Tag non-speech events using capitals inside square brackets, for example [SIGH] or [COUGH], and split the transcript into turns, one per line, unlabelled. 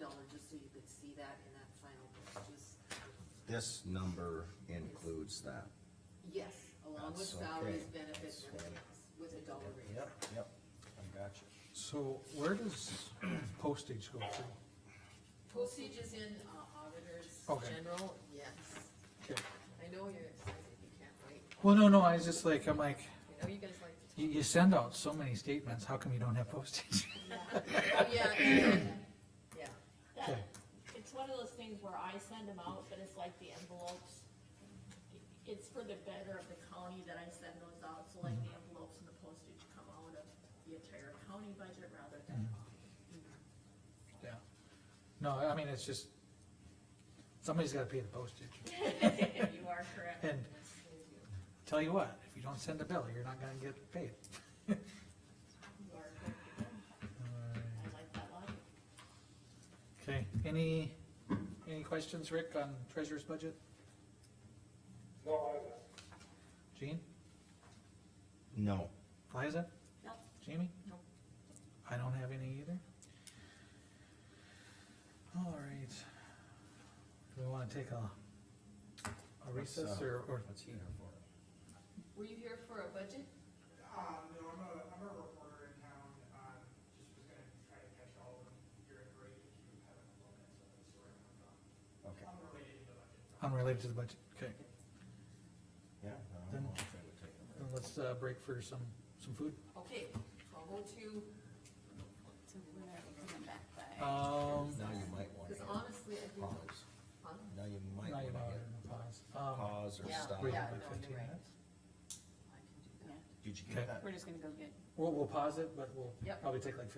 dollar, just so you could see that in that final bill, just,
This number includes that.
yes, along with
That's okay.
salaries, benefits,
That's
and everything
right.
else, with a dollar raise.
Yep, I got you.
So where does postage go to?
Postage is in uh, auditors
Okay.
general, yes,
Okay.
I know you're excited, you can't wait,
Well, no, no, I was just like, I'm like,
I know you guys like to talk.
you, you send out so many statements, how come you don't have postage? [LAUGHS]
Oh, Yeah, and, yeah,
Okay.
It's one of those things where I send them out, but it's like the envelopes. It's for the better of the county that I send those out, so like the envelopes and the postage come out of the entire county budget rather than.
Yeah. No, I mean, it's just, somebody's gotta pay the postage.
[LAUGHS] You are correct.
And tell you what, if you don't send a bill, you're not gonna get paid.
You are correct. I like that logic.
Okay, any, any questions, Rick, on treasurer's budget? No, I Jean,
No,
Liza,
no,
Jamie?
Nope.
I don't have any either. All right. Do we wanna take a, a
What's,
recess
uh,
or, or,
what's he here for?
were you here for a budget?
Um, no, I'm a, I'm a reporter in town, um, just was gonna try to catch all of them here at break if you haven't looked at some of the story I'm on.
Okay,
Unrelated to the budget.
unrelated to the budget? Okay,
yeah. I don't know if they would take it.
then let's, uh, break for some, some food.
Okay, twelve oh two,
So we're not coming back by.
Um,
Now you might want to
because honestly, I think,
pause.
huh?
Now you might
Um, now
want
you
to
know, pause. Um,
pause or
Yeah.
stop.
we
Yeah. no,
have like
you're
fifteen
right.
minutes.
I can do that.
Did you
Okay.
get that?
We're just gonna go get
We'll, we'll pause it, but we'll
Yep.
probably take like